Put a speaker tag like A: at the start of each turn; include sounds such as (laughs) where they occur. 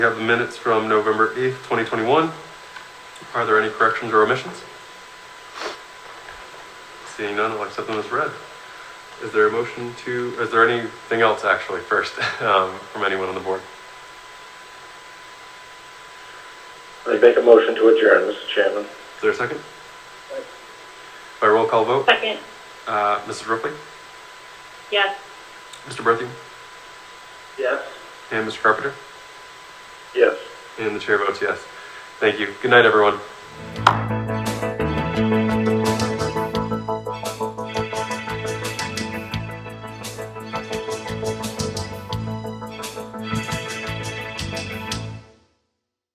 A: We have the minutes from November 8th, 2021. Are there any corrections or omissions? Seeing none, I'll accept them as read. Is there a motion to, is there anything else actually first (laughs) um, from anyone on the board?
B: I make a motion to adjourn, Mr. Chairman.
A: Is there a second? By roll call vote,
C: Second,
A: uh, Mrs. Ruffey,
C: yes.
A: Mr. Bertheum,
B: Yes.
A: and Mr. Carpenter,
B: Yes.
A: and the chair votes yes. Thank you. Good night, everyone.